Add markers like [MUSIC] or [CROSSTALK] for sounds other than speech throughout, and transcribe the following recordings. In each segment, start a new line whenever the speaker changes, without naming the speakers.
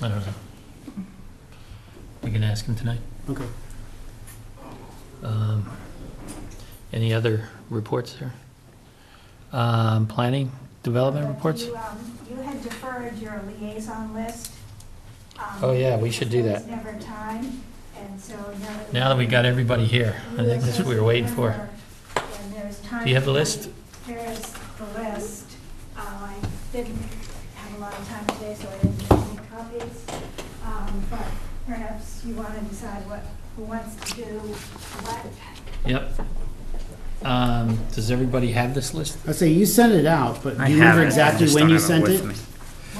I don't know. We can ask him tonight.
Okay.
Um, Any other reports there? Um, Planning, development
But
reports?
You um, you had deferred your liaison list. um,
Oh, yeah, we should do
there was
that.
never time, and so now that.
Now that we got everybody here, I think that's what we were waiting for.
And there's time.
Do you have the list?
There's the list. Uh, I didn't have a lot of time today, so I didn't get any copies. Um, But perhaps you want to decide what, who wants to do what.
Yep. Um, Does everybody have this list?
I say you sent it out, but do
I
you
have
remember
it. I
exactly
just
when
don't
you
have
sent
with
it?
me.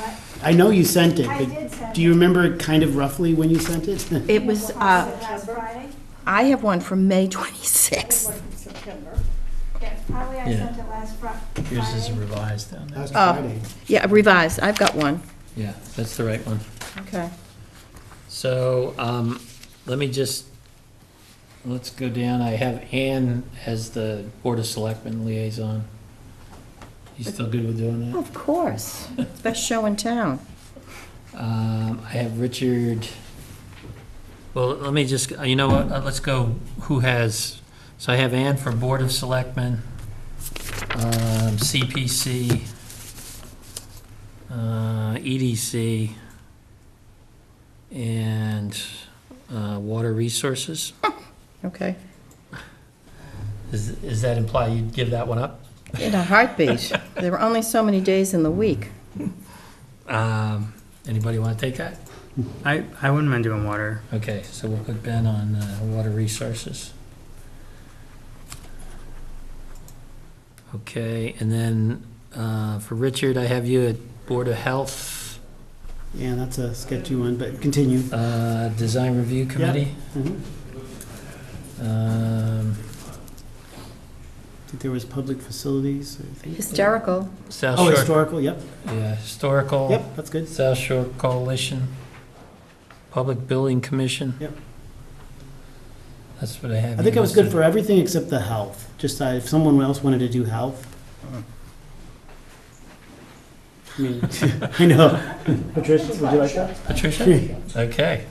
What,
I know you sent it,
I did
but
send
do you remember kind of roughly when you sent it?
It was, uh,
last Friday?
I have one from May 26th.
Yeah, probably I
Yeah.
sent it last Fri- Friday.
Yours is revised down there.
[LAUGHS] Last
oh.
Friday.
Yeah, revised, I've got one.
Yeah, that's the right one.
Okay.
So, um, let me just, let's go down. I have Ann as the Board of Selectmen liaison. You still good with doing that?
Of course. It's Best show in town.
Um, I have Richard. Well, let me just, you know what, uh, let's go, who has, so I have Ann for Board of Selectmen, um, CPC, uh, EDC, and, uh, Water Resources.
Okay.
Does, does that imply you'd give that one up?
In a heartbeat. There were only so many days in the week.
Um, anybody wanna take that?
I, I wouldn't mind doing water.
Okay, so we'll put Ben on uh, water resources. Okay, and then uh, for Richard, I have you at Board of Health,
Yeah, that's a sketchy one, but continue.
uh, Design Review Committee.
Mhm.
um,
I think there was public facilities, I think.
Hysterical.
South
Oh,
Shore,
historical, yep,
yeah, Historical,
yep, that's good.
South Shore Coalition, Public Building Commission.
Yep.
That's what I have.
I think
you
it was good
listed.
for everything except the health, just uh, if someone else wanted to do health.
Uh-huh.
I mean, [LAUGHS] I know. Patricia, would you like that? [LAUGHS]
Patricia? Okay.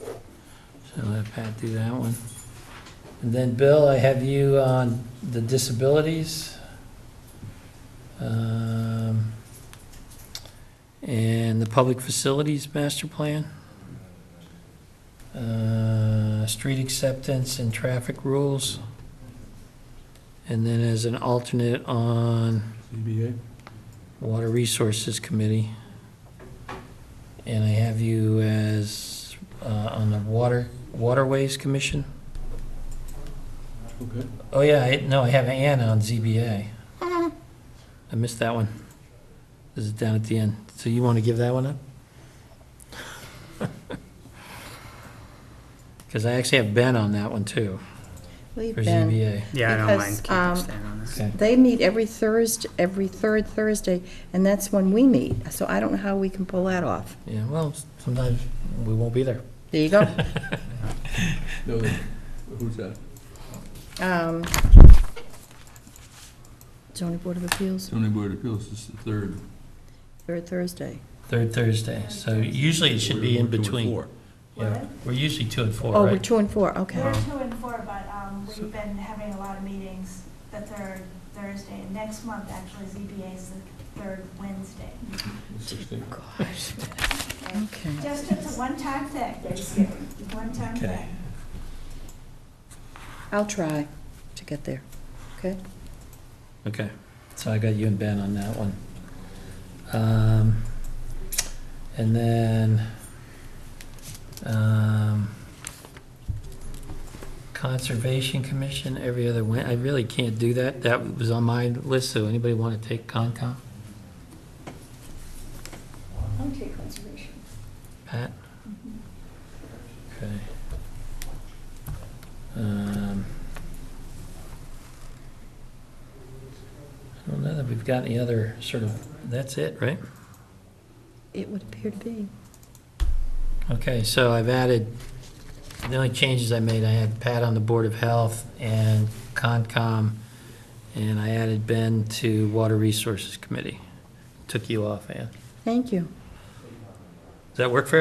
So let Pat do that one. And then, Bill, I have you on the disabilities. um, And the public facilities master plan. uh, Street acceptance and traffic rules. And then as an alternate on
CBA?
Water Resources Committee. And I have you as, uh, on the Water, Waterways Commission?
Okay.
Oh, yeah, I, no, I have Ann on ZBA. I missed that one. This is down at the end. So you want to give that one up? [LAUGHS] Because I actually have Ben on that one, too,
Leave
for
Ben.
ZBA.
Yeah, I don't
Because,
mind keeping
um,
staying on this.
Okay.
They meet every Thursday, every third Thursday, and that's when we meet. So I don't know how we can pull that off.
Yeah, well, sometimes we won't be there. [LAUGHS]
There you go.
No, who's that?
Um, zoning board of appeals,
Zoning Board of Appeals is the third.
third Thursday.
Third Thursday, so usually it should be in
We're doing
between.
four.
Yeah, We're usually two and four,
Oh, we're
right?
two and four, okay.
We're two and four, but um, we've been having a lot of meetings the third Thursday. And Next month, actually, ZBA is the third Wednesday.
Sixteen.
Gosh.
Okay.
Okay.
Just it's a one-time thing, one-time
Okay.
thing.
I'll try to get there, okay?
Okay, so I got you and Ben on that one. Um, and then, um, Conservation Commission, every other Wed, I really can't do that. That was on my list, so anybody want to take Concom?
I'll take conservation.
Pat?
Mm-hmm.
Okay. Um, I don't know that we've got any other sort of, that's it, right?
It would appear to be.
Okay, so I've added, the only changes I made, I had Pat on the Board of Health and Concom, and I added Ben to Water Resources Committee. Took you off, Ann.
Thank you.
Does that work for everybody?